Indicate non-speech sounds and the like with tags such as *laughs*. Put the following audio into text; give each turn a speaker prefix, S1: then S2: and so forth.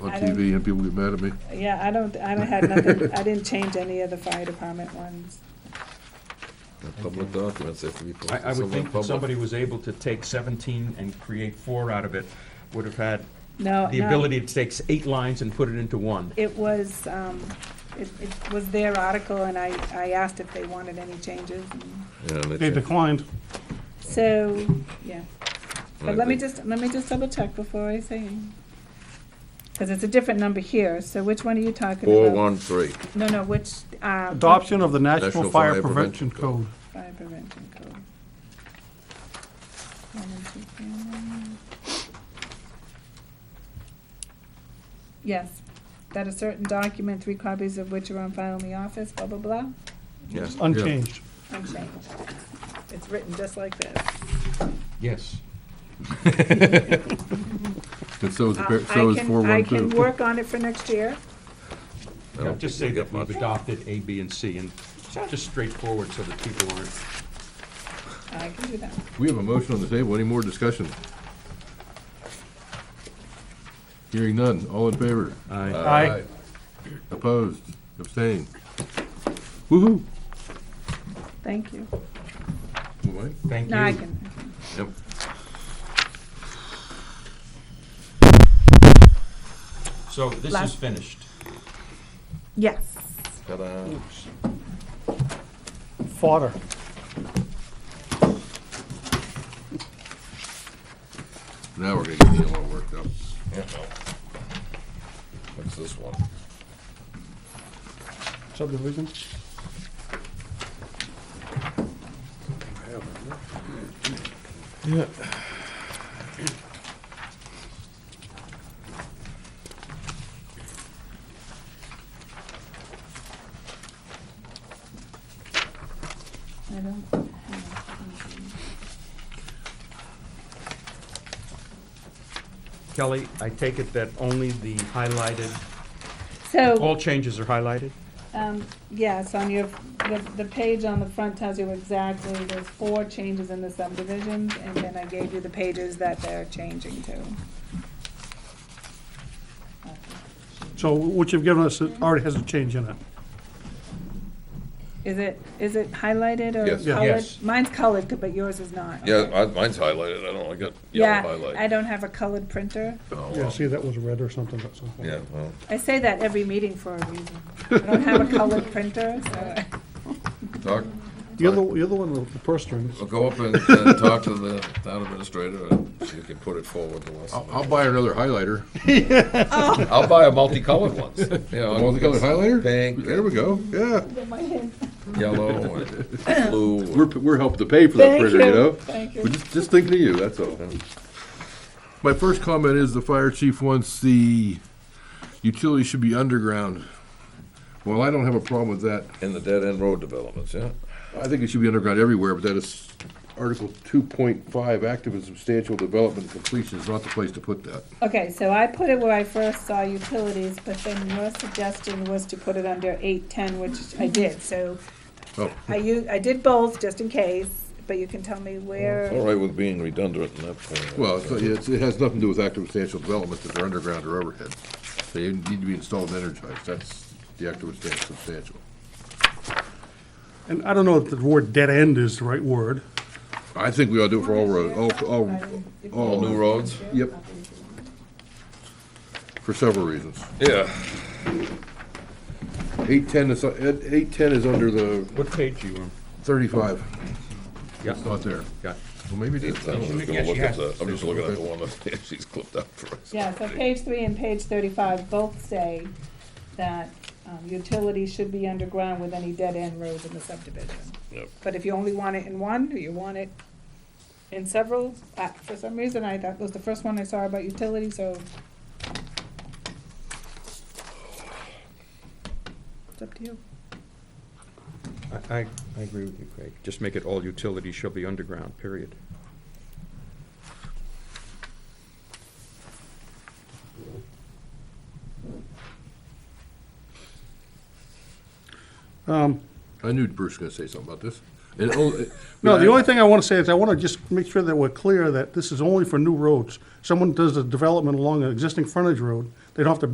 S1: on
S2: I don't-
S1: TV and people get mad at me.
S2: Yeah, I don't, I don't have nothing, I didn't change any of the fire department ones.
S3: They're Public documents, they have to be
S4: I, I
S3: posted
S4: would
S3: somewhere
S4: think that
S3: public.
S4: somebody was able to take seventeen and create four out of it, would have had
S2: No,
S4: the
S2: no,
S4: ability to take eight lines and put it into one.
S2: It was, um, it, it was their article and I, I asked if they wanted any changes. and-
S3: Yeah, and they
S5: They
S3: check-
S5: declined.
S2: So, yeah. But
S3: Right,
S2: let me
S3: they-
S2: just, let me just double check before I say. Because it's a different number here, so which one are you talking about?
S3: Four, one, three.
S2: No, no, which, uh.
S5: Adoption of the
S3: National
S5: National Fire
S3: Fire
S5: Prevention Code.
S3: Prevention
S2: Fire prevention code. One and two family. Yes, that a certain document, three copies of which are on file in the office, blah, blah, blah,
S3: Yeah.
S5: Unchanged.
S2: unchanged. It's written just like this.
S4: Yes.
S1: And so is, the
S2: Uh,
S1: par-
S2: I
S1: so is
S2: can-
S1: four
S2: I
S1: one
S2: can
S1: two.
S2: work on it for next year.
S3: I don't
S4: Just say
S3: think they
S4: that
S3: get much.
S4: we've adopted A, B, and C, and just straightforward so that people aren't,
S2: I can do that.
S1: We have a motion on the table. Any more discussion? Hearing none. All in favor?
S4: I,
S5: Aye.
S1: Opposed? Abstained? Woo-hoo.
S2: Thank you.
S1: What?
S4: thank you.
S2: No, I can.
S3: Yep.
S4: So this is
S2: Last-
S4: finished.
S2: Yes.
S3: Ta-da.
S5: Fodder.
S1: Now we're gonna get the yellow worked up.
S3: Yeah. What's this one?
S5: Subdivision.
S2: I don't have anything.
S4: Kelly, I take it that only the highlighted,
S2: So.
S4: all changes are highlighted?
S2: Um, Yes, on your, the, the page on the front tells you exactly, there's four changes in the subdivisions, and then I gave you the pages that they're changing to.
S5: So what you've given us it already has a change in it.
S2: Is it, is it highlighted or
S3: Yes.
S2: colored?
S3: Yeah.
S4: Yes.
S2: Mine's colored, but yours is not.
S3: Yeah,
S2: okay.
S3: I- mine's highlighted, I don't, I got
S2: Yeah,
S3: yellow highlight.
S2: I don't have a colored printer.
S3: Oh,
S5: Yeah,
S3: well.
S5: see, that was red or something, that's something.
S3: Yeah, well,
S2: I say that every meeting for a reason. I don't have a colored printer, so.
S3: talk,
S5: You're the, you're the one with the purse strings.
S3: well, go up and, and talk to the town administrator, and see if you can put it forward to us.
S1: I'll, I'll buy another highlighter.
S3: I'll buy a multicolored ones, you know.
S1: Multicolored highlighter?
S3: Pink.
S1: There we go, yeah.
S3: Yellow and blue.
S1: We're, we're helping to pay for that
S2: Thank
S1: printer, you
S2: you,
S1: know?
S2: thank you.
S1: We're just, just thinking of you, that's all. My first comment is the fire chief wants the utility should be underground. Well, I don't have a problem with that.
S3: In the dead-end road developments, yeah.
S1: I think it should be underground everywhere, but that is Article two point five, active and substantial development completion is not the place to put that.
S2: Okay, so I put it where I first saw utilities, but then your suggestion was to put it under eight-ten, which I did, so
S1: Oh,
S2: I u- I did both, just in case, but you can tell me
S3: It's all
S2: where,
S3: right with being redundant in that point.
S1: well, it's, it's- it has nothing to do with active and substantial development that they're underground or overhead. They need to be installed and energized, that's the active and substan- substantial.
S5: And I don't know if the word dead end is the right word.
S1: I think we ought to do it for all roads, all, all,
S3: All new roads?
S1: Yep. For several reasons.
S3: Yeah.
S1: Eight ten is, eight ten is under the
S4: What page are you on?
S1: thirty-five.
S4: Yeah.
S1: It's not there.
S4: Got it.
S1: Well, maybe it
S3: I'm
S1: is.
S3: just gonna look
S4: Yes, you
S3: at
S4: have.
S3: the, I'm just looking at the one that *laughs* she's clipped out for us.
S2: yeah, so page three and page thirty-five both say that um, utilities should be underground with any dead-end roads in the subdivision.
S3: Yep.
S2: But if you only want it in one, or you want it in several, uh, for some reason, I, that was the first one I saw about utilities, so. It's up to you.
S4: I, I I agree with you, Craig. Just make it all utilities shall be underground, period.
S5: Um,
S1: I knew Bruce was gonna say something about this. And only-
S5: No, the only thing I want to say is I want to just make sure that we're clear that this is only for new roads. Someone does a development along an existing frontage road, they don't have to